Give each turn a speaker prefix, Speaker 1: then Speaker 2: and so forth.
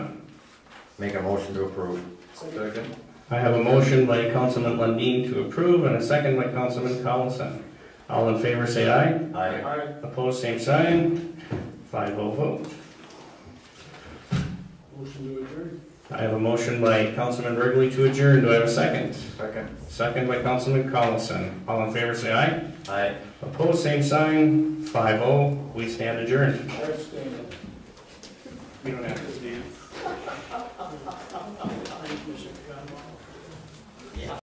Speaker 1: Make a motion to approve.
Speaker 2: Second.
Speaker 3: I have a motion by Councilman Lundin to approve and a second by Councilman Collison. All in favor, say aye.
Speaker 1: Aye.
Speaker 3: Opposed, same sign. Five oh vote.
Speaker 2: Motion to adjourn.
Speaker 3: I have a motion by Councilman Burgley to adjourn. Do I have a second?
Speaker 2: Second.
Speaker 3: Second by Councilman Collison. All in favor, say aye.
Speaker 1: Aye.
Speaker 3: Opposed, same sign. Five oh. We stand adjourned. You don't have to stand.
Speaker 2: Yeah.